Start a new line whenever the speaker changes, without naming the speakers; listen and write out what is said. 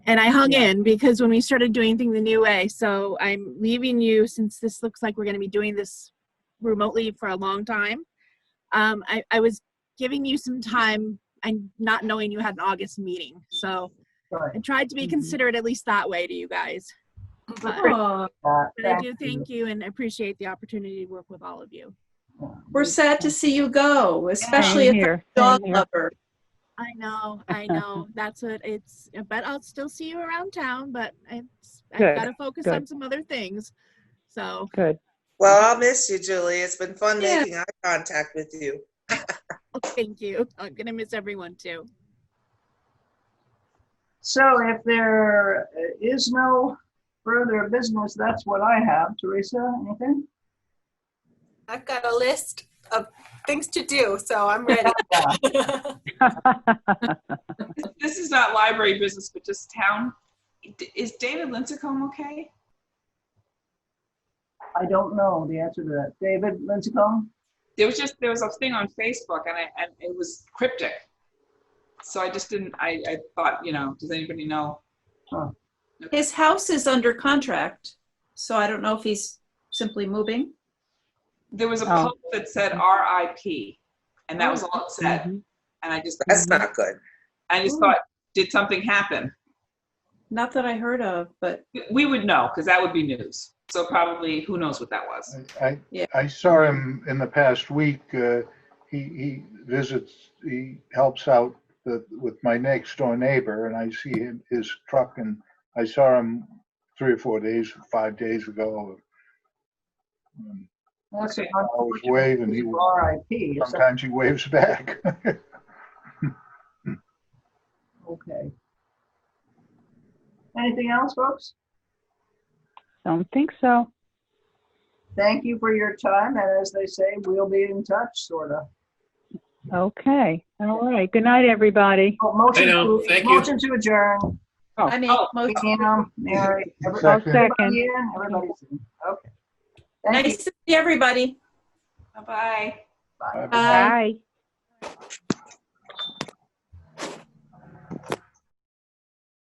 And I hung
Yeah.
in because when we started doing things the new way, so I'm leaving you since this looks like we're going to be doing this remotely for a long time. Um, I, I was giving you some time and not knowing you had an August meeting. So
Sure.
I tried to be
Mhm.
considerate at least that way to you guys. But,
Aw,
Uh,
but I
thank
do
you.
thank you and appreciate the opportunity to work with all of you.
We're sad to see you go, especially
Same
if you're
here,
a dog
same here.
lover.
I know, I know. That's what it's. But I'll still see you around town. But it's, I've
Good,
got to focus
good.
on some other things. So
Good.
Well, I'll miss you, Julie. It's been fun
Yeah.
making eye contact with you.
thank you. I'm gonna miss everyone too.
So if there is no further business, that's what I have. Teresa, anything?
I've got a list of things to do, so I'm ready.
This is not library business, but just town. D- Is David Lincecum okay?
I don't know the answer to that. David Lincecum?
There was just, there was a thing on Facebook and I, and it was cryptic. So I just didn't, I, I thought, you know, does anybody know?
His house is under contract, so I don't know if he's simply moving.
There was a
Oh.
post that said RIP and that was all it said. And I just,
That's not good.
I just thought, did something happen?
Not that I heard of, but
We would know because that would be news. So probably, who knows what that was?
I,
Yeah.
I saw him in the past week. uh, He, he visits, he helps out the- with my next door neighbor and I see him, his truck and I saw him three or four days, five days ago. Um,
That's
Okay.
I was waving, he, was-
RIP. so-
sometimes he waves back.
Okay. Anything else, folks?
Don't think so.
Thank you for your time, and as they say, we'll be in touch, sort of.
Okay. All right. Good night, everybody.
Oh, Motion
I know,
to-
thank you.
Motion to adjourn.
I make
Oh.
most,
Pam, Mary, everybody-
I'll
Second.
second.
everybody in,
oh.
everybody's in. Okay. Thank you.
nice to see everybody.
Uh,
Bye-bye.
Bye.